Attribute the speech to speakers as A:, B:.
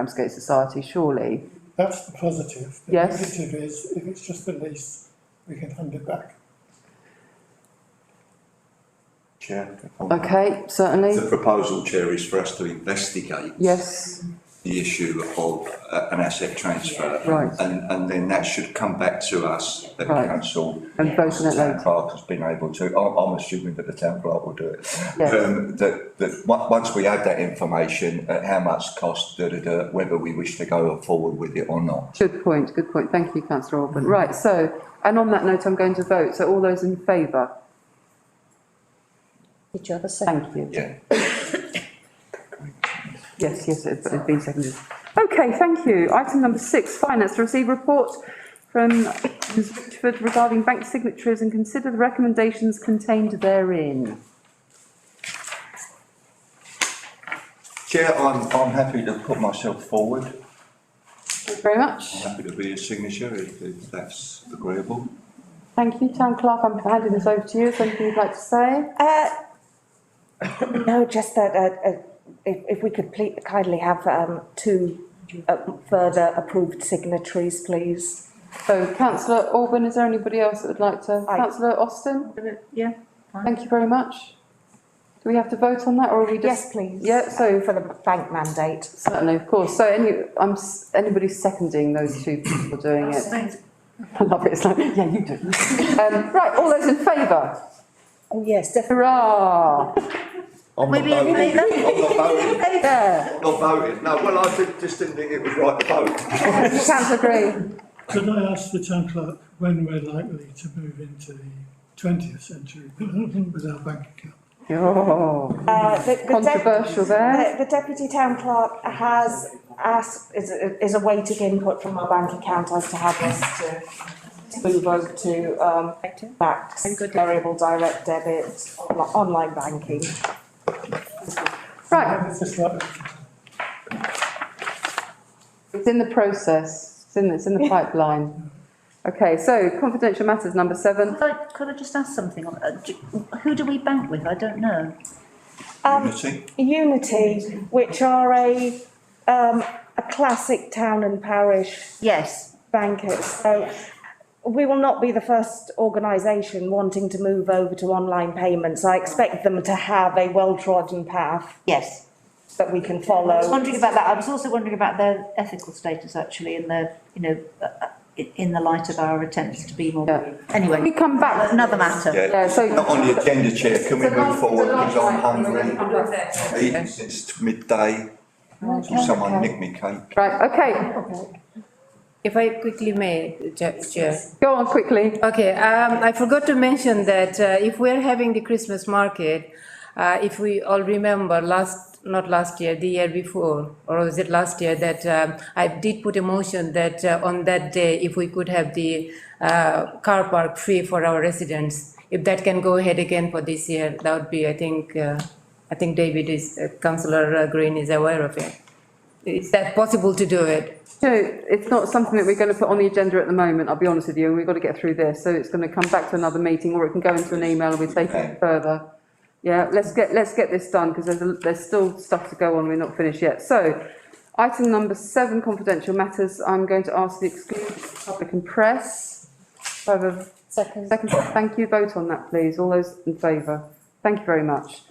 A: Ramsgate Society, surely.
B: That's the positive. The
A: Yes.
B: Negative is, if it's just a lease, we can hand it back.
C: Chair. on that.
A: Okay, certainly,
C: The proposal, Chair, is for us to investigate
A: yes,
C: the issue of uh, an asset transfer.
A: Right.
C: And, and then that should come back to us, the
A: Right.
C: council.
A: and vote on
C: The
A: it
C: town
A: later.
C: clerk has been able to, I'm, I'm assuming that the town clerk will do it.
A: Yes.
C: Um, that, that, on- once we have that information, uh, how much cost, da, da, da, whether we wish to go forward with it or not.
A: Good point, good point, thank you, councillor Orban. Right, so, and on that note, I'm going to vote, so all those in favour?
D: Did you have a second?
A: Thank you.
C: Yeah.
A: Yes, yes, it's it's been seconded. Okay, thank you. Item number six, finance, to receive report from Ms Richford regarding bank signatories and consider the recommendations contained therein.
C: Chair, I'm, I'm happy to put myself forward.
A: Thank you very much.
C: I'm happy to be a signature if, if that's agreeable.
A: Thank you, town clerk, I'm handing this over to you, if anything you'd like to say?
D: Uh, no, just that, uh, uh, if, if we could please kindly have, um, two uh, further approved signatories, please.
A: So councillor Orban, is there anybody else that would like to?
D: Aye.
A: Councillor Austin,
E: Yeah,
A: thank you very much. Do we have to vote on that or are we just?
D: Yes, please.
A: Yeah, so
D: For the bank mandate.
A: certainly, of course. So any, I'm, s- anybody seconding those two people doing it? I love it, it's like, yeah, you do. Um, right, all those in favour?
D: Oh, yes, definitely.
A: Hurrah!
C: I'm not
E: Maybe you
C: voting.
E: make that-
C: I'm not voting.
A: There,
C: Not voting, no, well, I did- just didn't think it was right to vote.
A: councillor Green.
B: Could I ask the town clerk when we're likely to move into the twentieth century with our bank account?
A: Oh,
D: Uh, the- the dep-
A: Controversial there.
D: The the deputy town clerk has asked, is, is awaiting input from our bank account as to how best to move over to, um, back variable direct debit, on- online banking.
A: right,
B: It's just like,
A: it's in the process, it's in, it's in the pipeline. Okay, so confidential matters, number seven.
E: Could I, could I just ask something on, uh, do- who do we bank with? I don't know.
D: Um,
C: Unity,
D: Unity, which are a, um, a classic town and parish
E: Yes,
D: bankers. So we will not be the first organisation wanting to move over to online payments. I expect them to have a well-trodden path
E: yes.
D: that we can
E: I was
D: follow.
E: wondering about that. I was also wondering about their ethical status actually in the, you know, uh, uh, in, in the light of our attempts to be more.
A: Yeah. We
E: Anyway,
A: come back to
E: another matter.
A: Yeah,
C: yeah,
A: so-
C: not on the agenda, Chair, can we
A: It's a long-
C: move forward,
A: it's a long
C: because I'm
A: time.
C: hungry. I've Eaten since midday, Will someone nick me cake.
A: Right, okay,
F: If I quickly may, Ja- Chair.
A: go on quickly.
F: Okay, um, I forgot to mention that uh, if we're having the Christmas market, uh, if we all remember last, not last year, the year before, or was it last year, that um, I did put a motion that uh, on that day, if we could have the uh, car park free for our residents, if that can go ahead again for this year, that would be, I think, uh, I think David is, uh, councillor uh, Green is aware of it. Is that possible to do it?
A: So it's not something that we're going to put on the agenda at the moment, I'll be honest with you, and we've got to get through this, so it's going to come back to another meeting, or it can go into an email and we take
C: Okay.
A: it further. Yeah, let's get, let's get this done, because there's, a- there's still stuff to go on, we're not finished yet. So, item number seven, confidential matters, I'm going to ask the exclusion of public and press. Do I have a
D: Second.
A: second, thank you, vote on that, please, all those in favour, thank you very much.